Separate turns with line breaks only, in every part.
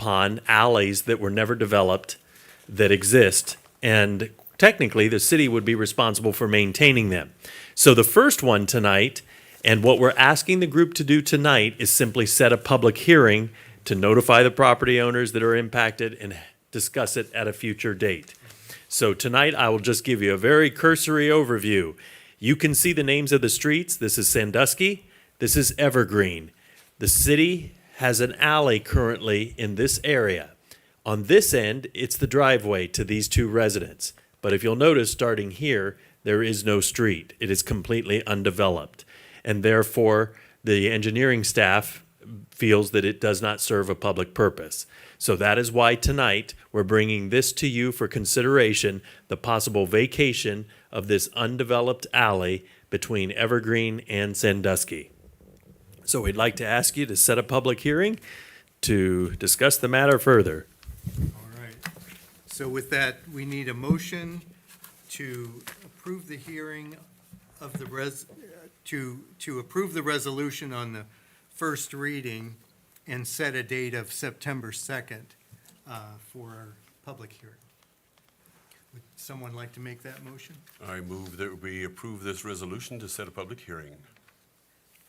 upon alleys that were never developed that exist. And technically, the city would be responsible for maintaining them. So the first one tonight, and what we're asking the group to do tonight is simply set a public hearing to notify the property owners that are impacted and discuss it at a future date. So tonight, I will just give you a very cursory overview. You can see the names of the streets. This is Sandusky. This is Evergreen. The city has an alley currently in this area. On this end, it's the driveway to these two residents. But if you'll notice, starting here, there is no street. It is completely undeveloped. And therefore, the engineering staff feels that it does not serve a public purpose. So that is why tonight we're bringing this to you for consideration the possible vacation of this undeveloped alley between Evergreen and Sandusky. So we'd like to ask you to set a public hearing to discuss the matter further.
All right. So with that, we need a motion to approve the hearing of the res, to, to approve the resolution on the first reading and set a date of September 2nd uh, for our public hearing. Would someone like to make that motion
I move that we approve this resolution to set a public hearing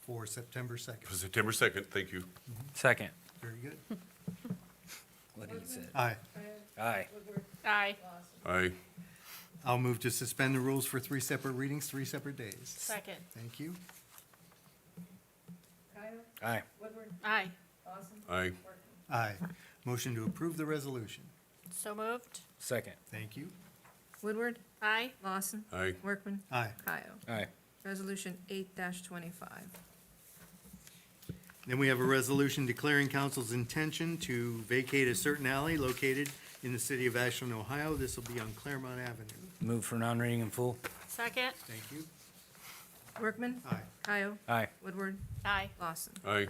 for September 2nd?
for September 2nd. Thank you.
Second.
Very good.
What he said.
Aye.
Aye.
Aye.
I,
I'll move to suspend the rules for three separate readings, three separate days.
Second.
Thank you.
Aye.
Aye.
I,
Aye. Motion to approve the resolution.
So moved.
Second.
Thank you.
Woodward,
Aye.
Lawson,
I,
Workman,
Aye.
Kyle.
Aye.
Resolution eight twenty-five.
Then we have a resolution declaring council's intention to vacate a certain alley located in the city of Ashland, Ohio. This will be on Claremont Avenue.
Move for non-reading in full.
Second.
Thank you.
Workman,
Aye.
Kyle,
Aye.
Woodward,
Aye.
Lawson.
I,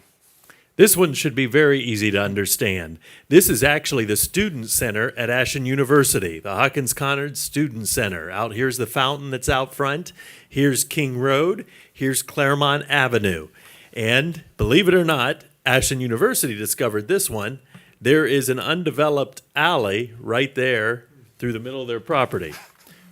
This one should be very easy to understand. This is actually the Student Center at Ashen University, the Hawkins Conard Student Center. Out here's the fountain that's out front. Here's King Road. Here's Claremont Avenue. And believe it or not, Ashen University discovered this one. There is an undeveloped alley right there through the middle of their property.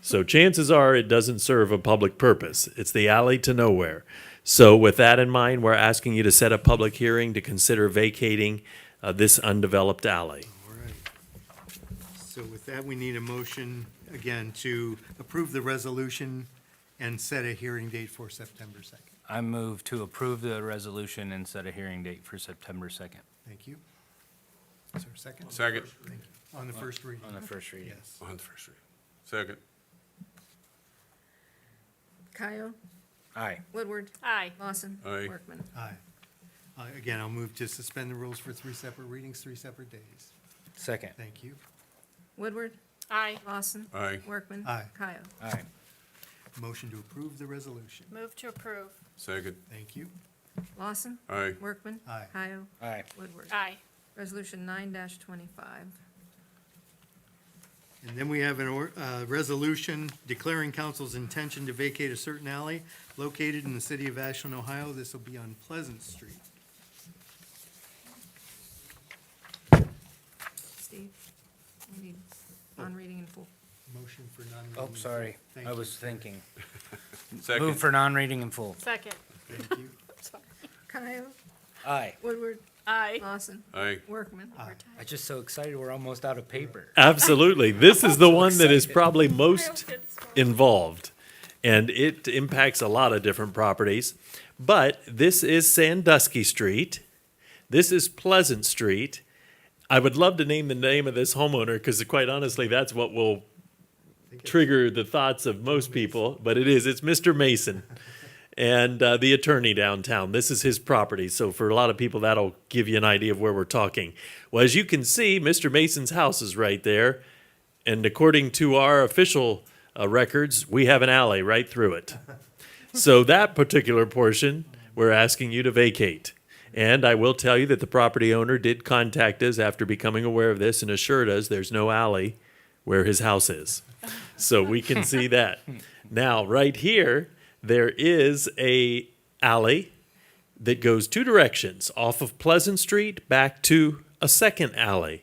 So chances are it doesn't serve a public purpose. It's the alley to nowhere. So with that in mind, we're asking you to set a public hearing to consider vacating uh, this undeveloped alley.
All right. So with that, we need a motion, again, to approve the resolution and set a hearing date for September 2nd.
I move to approve the resolution and set a hearing date for September 2nd
Thank you. Is there a second?
Second.
Thank you. On the first reading?
Uh, on the first reading.
Yes.
on the first reading. Second,
Kyle,
Aye.
Woodward,
Aye.
Lawson.
Aye.
Workman.
Aye. Uh, Again, I'll move to suspend the rules for three separate readings, three separate days.
Second.
Thank you.
Woodward,
Aye.
Lawson.
Aye.
Workman.
Aye.
Kyle.
Aye.
Motion to approve the resolution.
Move to approve.
second,
Thank you.
Lawson.
I,
Workman.
Aye.
Kyle.
Aye.
Woodward.
Aye.
Resolution nine twenty-five.
And then we have an or, uh, resolution declaring council's intention to vacate a certain alley located in the city of Ashland, Ohio. This will be on Pleasant Street.
Steve, we need on reading in full.
Motion for non-reading.
Oh, sorry.
Thank
I
you.
was thinking. Move
second,
for non-reading in full.
Second.
Thank you.
Kyle,
Aye.
Woodward,
Aye.
Lawson,
I,
Workman.
Aye.
I'm just so excited. We're almost out of paper.
Absolutely. This is the one that is probably most
Second.
involved, and it impacts a lot of different properties. But this is Sandusky Street. This is Pleasant Street. I would love to name the name of this homeowner because, quite honestly, that's what will trigger the thoughts of most people. But it is, it's Mr. Mason and uh, the attorney downtown. This is his property. So, for a lot of people, that'll give you an idea of where we're talking. Well, as you can see, Mr. Mason's house is right there. And according to our official uh, records, we have an alley right through it. so that particular portion, we're asking you to vacate. And I will tell you that the property owner did contact us after becoming aware of this and assured us there's no alley where his house is. So we can see that. Now, right here, there is a alley that goes two directions off of Pleasant Street back to a second alley